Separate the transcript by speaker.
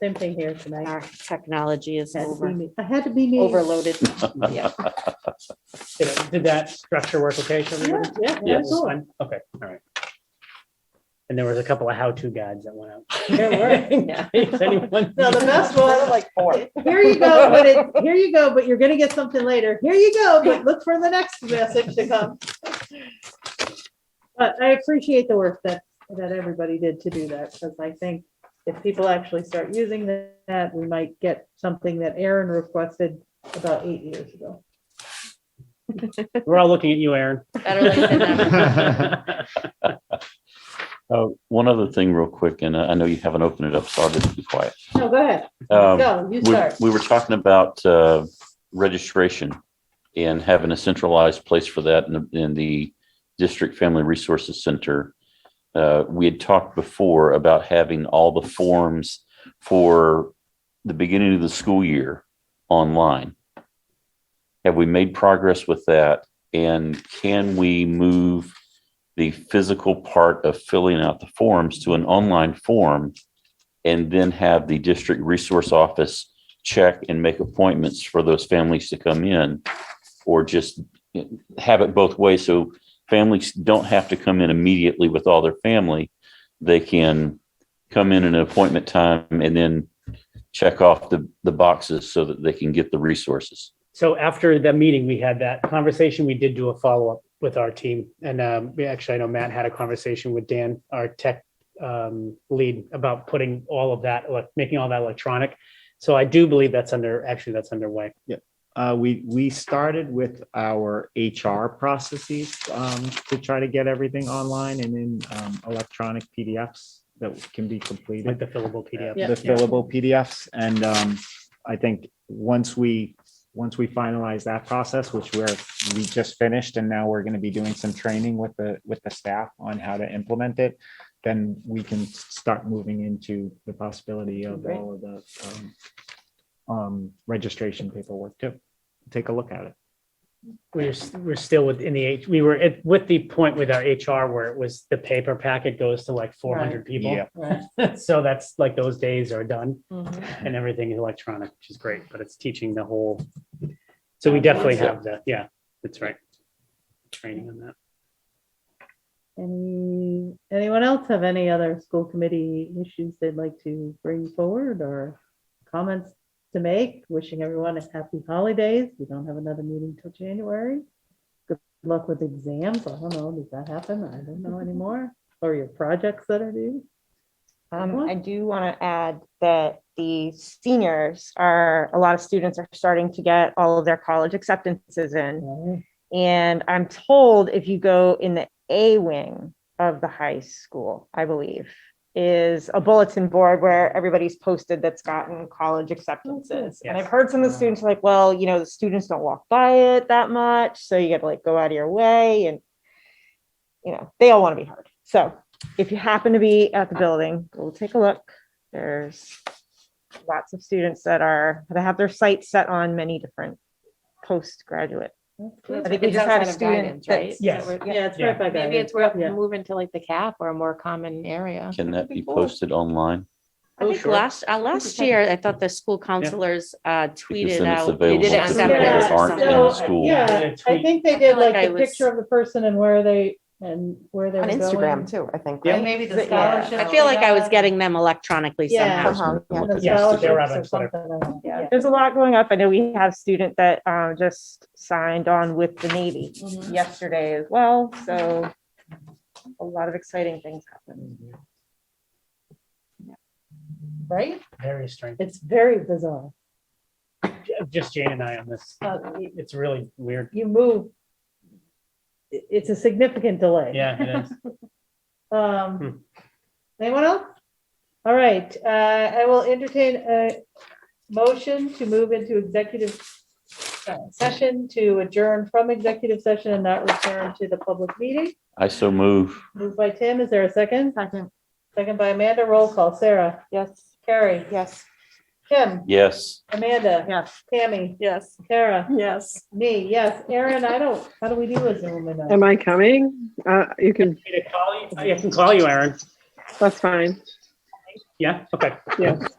Speaker 1: Same thing here tonight.
Speaker 2: Our technology is
Speaker 1: Had to be
Speaker 2: over,
Speaker 1: me- I had to be me.
Speaker 2: overloaded. Yeah.
Speaker 3: Did it- did that structure work okay for
Speaker 1: Yeah,
Speaker 3: everybody?
Speaker 1: yeah, yeah,
Speaker 3: That's
Speaker 1: cool.
Speaker 3: fine. Okay, all right. And there was a couple of how-to guides that went out.
Speaker 1: There were.
Speaker 2: Yeah.
Speaker 3: If anyone-
Speaker 1: No, the best was,
Speaker 4: Like four.
Speaker 1: here you go, but it, here you go, but you're gonna get something later. Here you go, but look for the next message to come. But I appreciate the work that, that everybody did to do that, because I think if people actually start using that, we might get something that Aaron requested about eight years ago.
Speaker 3: We're all looking at you, Aaron.
Speaker 2: Better late than never.
Speaker 5: Uh, one other thing real quick, and I I know you haven't opened it up, so I'll just be quiet.
Speaker 1: No, go ahead,
Speaker 5: Um,
Speaker 1: go, you
Speaker 5: we,
Speaker 1: start.
Speaker 5: we were talking about uh, registration and having a centralized place for that in the, in the district family resources center. Uh, we had talked before about having all the forms for the beginning of the school year online. Have we made progress with that? And can we move the physical part of filling out the forms to an online form? And then have the district resource office check and make appointments for those families to come in or just have it both ways. So families don't have to come in immediately with all their family. They can come in at an appointment time and then check off the, the boxes so that they can get the resources.
Speaker 3: So after the meeting, we had that conversation. We did do a follow-up with our team. And um, we actually, I know Matt had a conversation with Dan, our tech um, lead, about putting all of that, like, making all that electronic. So I do believe that's under, actually, that's underway.
Speaker 4: Uh, we, we started with our HR processes, um, to try to get everything online and in, um, electronic PDFs that can be completed.
Speaker 3: Like the fillable PDF.
Speaker 1: Yeah.
Speaker 4: the fillable PDFs. And um, I think once we, once we finalize that process, which we're, we just finished, and now we're going to be doing some training with the, with the staff on how to implement it, then we can start moving into the possibility of
Speaker 1: Great.
Speaker 4: all of the um, um, registration paperwork too. Take a look at it.
Speaker 3: We're, s- we're still within the, H- we were at, with the point with our HR where it was the paper packet goes to like four hundred people.
Speaker 1: Right.
Speaker 3: So that's like those days are done
Speaker 1: Mhm.
Speaker 3: and everything is electronic, which is great, but it's teaching the whole. So we definitely have that. Yeah, that's right. Training on that.
Speaker 1: Uh, Any, anyone else have any other school committee issues they'd like to bring forward or comments to make? Wishing everyone a happy holidays. We don't have another meeting till January. Good luck with exams. I don't know, does that happen? I don't know anymore. Or your projects that are due?
Speaker 6: Um,
Speaker 1: Mhm.
Speaker 6: I do want to add that the seniors are, a lot of students are starting to get all of their college acceptances in. And I'm told if you go in the A wing of the high school, I believe, is a bulletin board where everybody's posted that's gotten college acceptances. And I've
Speaker 3: Yes.
Speaker 6: heard some of the students are like, well, you know, the students don't walk by it that much, so you gotta like go out of your way and you know, they all want to be heard. So if you happen to be at the building, go take a look. There's lots of students that are, that have their sights set on many different postgraduate.
Speaker 1: That's
Speaker 2: Well,
Speaker 1: good.
Speaker 6: I think we
Speaker 2: It's
Speaker 6: just had a
Speaker 2: outside of
Speaker 6: student
Speaker 2: guidance, right?
Speaker 6: that's-
Speaker 3: Yes.
Speaker 2: So we're-
Speaker 1: Yeah, it's
Speaker 3: Yeah.
Speaker 1: right by
Speaker 2: Maybe
Speaker 1: guidance.
Speaker 2: it's worth
Speaker 1: Yeah.
Speaker 2: moving to like the cap or a more common area.
Speaker 5: Can that be
Speaker 2: Before.
Speaker 5: posted online?
Speaker 2: I
Speaker 1: Oh,
Speaker 2: think
Speaker 1: sure.
Speaker 2: last, uh, last year, I thought the school counselors uh,
Speaker 5: Because
Speaker 2: tweeted
Speaker 5: then it's
Speaker 2: out. they
Speaker 5: available
Speaker 2: did it
Speaker 5: to
Speaker 2: on
Speaker 5: people
Speaker 1: separate
Speaker 2: Saturdays
Speaker 5: that
Speaker 2: or
Speaker 5: aren't in
Speaker 2: something.
Speaker 5: the
Speaker 1: So,
Speaker 5: school.
Speaker 1: Yeah, I think they
Speaker 2: I
Speaker 1: did
Speaker 2: feel like
Speaker 1: like a
Speaker 2: I was-
Speaker 1: picture of the person and where they, and where they were
Speaker 6: On
Speaker 1: going.
Speaker 6: Instagram too, I think.
Speaker 3: Yeah.
Speaker 6: right?
Speaker 2: Maybe the
Speaker 6: Is it- yeah.
Speaker 2: scholarship. I feel like I was
Speaker 1: Yeah.
Speaker 2: getting them electronically
Speaker 1: Yeah.
Speaker 2: somehow.
Speaker 5: Person that can
Speaker 6: Uh-huh,
Speaker 5: look
Speaker 1: And the
Speaker 5: at
Speaker 3: Yes,
Speaker 5: it.
Speaker 3: they were
Speaker 1: scholarships
Speaker 3: out
Speaker 1: or
Speaker 3: on Twitter.
Speaker 1: something.
Speaker 6: Yeah, There's a lot going up. I know we have a student that uh, just signed on with the Navy
Speaker 2: Mhm.
Speaker 6: yesterday as well, so a lot of exciting things happening.
Speaker 1: Right?
Speaker 3: Very strange.
Speaker 1: It's very bizarre.
Speaker 3: Just Jane and I on this.
Speaker 1: Uh, y-
Speaker 3: It's really weird.
Speaker 1: You move. i- It's a significant delay.
Speaker 3: Yeah, it is. Hmm.
Speaker 1: Um, anyone else? All right, uh, I will entertain a motion to move into executive uh, session to adjourn from executive session and not return to the public meeting.
Speaker 5: I so move.
Speaker 1: Moved by Tim, is there a second? Second. Second by Amanda, roll call, Sarah,
Speaker 6: Yes,
Speaker 1: Carrie,
Speaker 6: yes.
Speaker 1: Tim,
Speaker 5: Yes.
Speaker 1: Amanda.
Speaker 6: Yes.
Speaker 1: Tammy,
Speaker 2: Yes.
Speaker 1: Sarah,
Speaker 7: Yes.
Speaker 1: me, yes, Erin, I don't, how do we do as a woman?
Speaker 7: Am I coming? Uh, you can,
Speaker 3: I can call you, Aaron.
Speaker 7: that's fine.
Speaker 3: Yeah, okay.
Speaker 7: Yes.